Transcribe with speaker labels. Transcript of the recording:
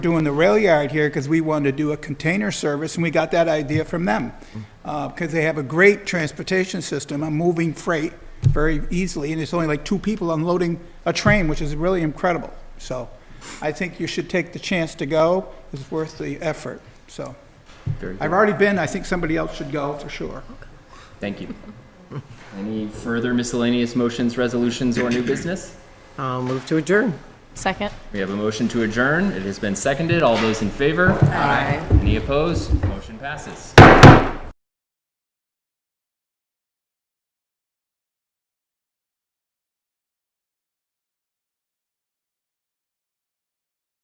Speaker 1: doing the rail yard here because we wanted to do a container service, and we got that idea from them. Because they have a great transportation system on moving freight very easily, and it's only like two people unloading a train, which is really incredible. So I think you should take the chance to go. It's worth the effort, so.
Speaker 2: Very
Speaker 1: I've already been, I think somebody else should go for sure.
Speaker 2: Thank you. Any further miscellaneous motions, resolutions, or new business?
Speaker 3: I'll Um, move to adjourn.
Speaker 4: Second.
Speaker 2: We have a motion to adjourn. It has been seconded. All those in favor? Aye. Any opposed? Motion passes.